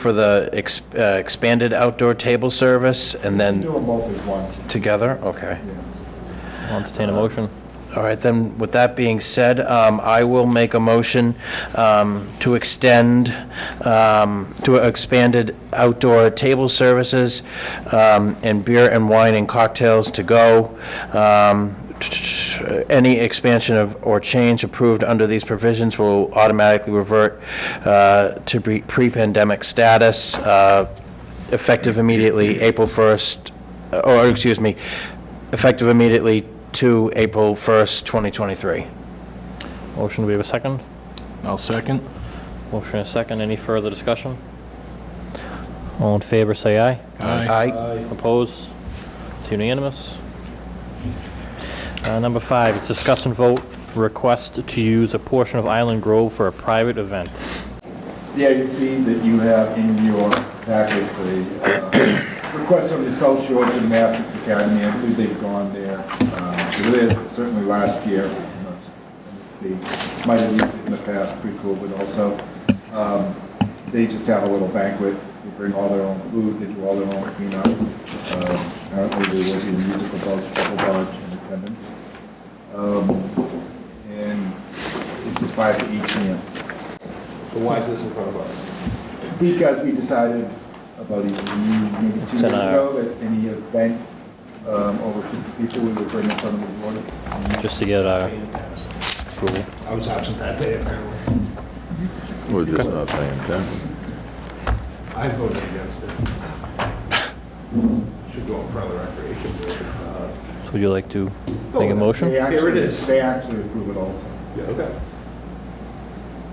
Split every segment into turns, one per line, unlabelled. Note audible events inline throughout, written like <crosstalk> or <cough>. for the ex- uh, expanded outdoor table service, and
Do
then
them both as one.
together? Okay.
I'll entertain a motion.
All right, then, with that being said, um, I will make a motion um, to extend, um, to expanded outdoor table services um, and beer and wine and cocktails to go. Um, Any expansion of, or change approved under these provisions will automatically revert uh, to pre- pre-pandemic status, uh, effective immediately April 1st, or, excuse me, effective immediately to April 1st, 2023.
Motion, do we have a second?
I'll second.
Motion and a second, any further discussion? All in favor, say aye.
Aye.
Opposed? It's unanimous. Uh, Number five, it's discuss and vote request to use a portion of Island Grove for a private event.
Yeah, you see that you have in your packets a uh, request from the South Shore Gymnastics Academy. I believe they've gone there. uh, They were there certainly last year. They might have used it in the past, pre-COVID also. Um, They just have a little banquet. They bring all their own food, they do all their own cleanup. Um, Apparently, there will be a musical box, purple barge in attendance. Um, And this is five to each meal.
why is this in front of us?
Because we decided about a year, maybe two
It's
years
an
ago, that any event um, over 50 people, we would bring in front of the board.
Just to get uh, our approval.
I was absent that day, apparently.
We're just not paying attention.
I voted against it. Should go in front of the recreation board. Uh,
So would you like to make a
They
motion?
actually-
Here it is.
They actually approve it also.
Yeah, okay.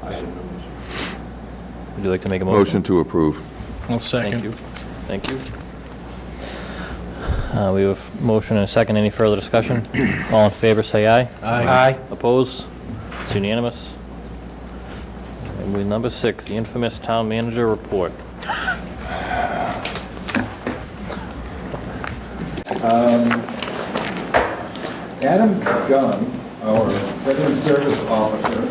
I didn't know
Would you like to make a
Motion
motion?
to approve.
I'll
Thank you.
second.
Thank you. Uh, We have a motion and a second, any further <clears throat> discussion? All in favor, say aye.
Aye.
Opposed? It's unanimous. And we, number six, the infamous town manager report.
Adam Gunn, our Veteran Service Officer,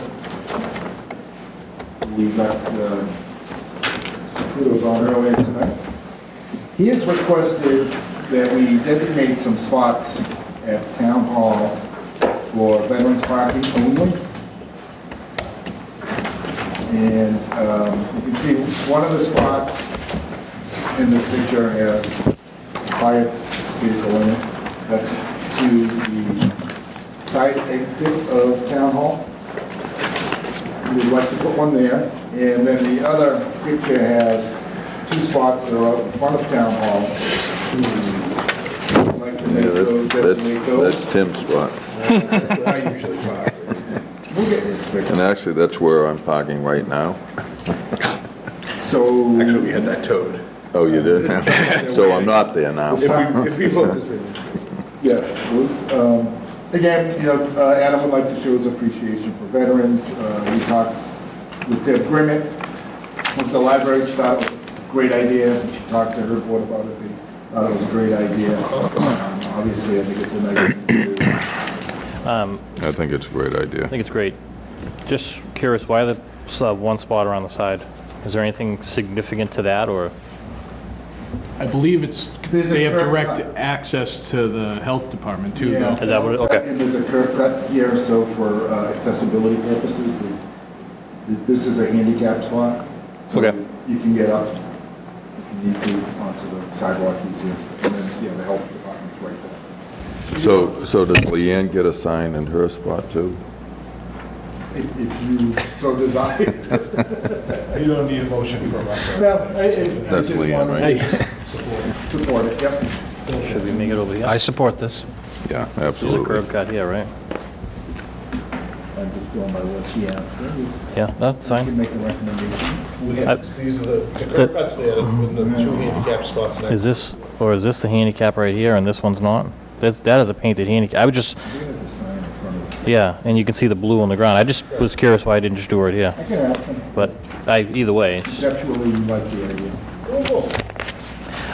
we got uh, some kudos on earlier tonight. He has requested that we designate some spots at Town Hall for veterans parking only. And um, you can see one of the spots in this picture has fire vehicle in it. That's to the side exit of Town Hall. We'd like to put one there. And then the other picture has two spots that are out in front of Town Hall. We'd Like to
Yeah,
make those,
that's,
designate
that's,
those.
that's Tim's spot.
this. I usually park.
We'll get this
And
fixed.
actually, that's where I'm parking right now.
So.
Actually, we had that towed.
Oh,
<laughs>
you did? So I'm not there now.
If we, if we vote this in,
Yeah, well, um, again, you know, uh, Adam would like to show his appreciation for veterans. Uh, We talked with Deb Grimmett with the library, she thought it was a great idea. She talked to her board about it, they thought it was a great idea. Um, Obviously, I think it's a nice thing to do.
I think it's a great
I
idea.
think it's great. Just curious, why the, still have one spot around the side? Is there anything significant to that, or?
I believe it's,
There's a
they have
curb
direct
cut.
access to the health department too,
Yeah.
though.
Is that what it- okay.
And there's a curb cut here, so for uh, accessibility purposes, the- th- this is a handicap spot. so
Okay.
You can get up, if you need to, onto the sidewalk easier, and then, yeah, the health department's right there.
So, so does Leanne get a sign in her spot too?
If- If you so desire.
you don't need a motion from us.
<laughs> No, I- I- I
That's
just
Leanne,
wanted
right?
to Support it, yep.
Should we make it over here?
I support this.
Yeah,
There's a curb
absolutely.
cut here, right?
I'm just going by what she asked. You
Yeah, that's
can
fine.
make a recommendation.
We have, these are the, the curb cuts there, with the two handicap spots next.
Is this, or is this the handicap right here, and this one's not? That's, that is a painted handicap. I would just,
There's the sign in front of it.
yeah, and you can see the blue on the ground. I just was curious why I didn't just do it here.
I can ask them,
But I, either way, it's-
conceptually, you like the idea.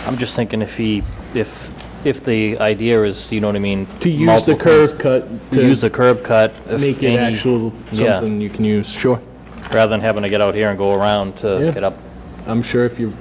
I'm just thinking if he, if, if the idea is, you know what I mean?
To use
multiple
the curb
things-
cut
To use the
to
curb cut. if
make it
any-
actual
Yeah.
something you can use. Sure.
Rather than having to get out here and go around to
Yeah.
get up
I'm sure if you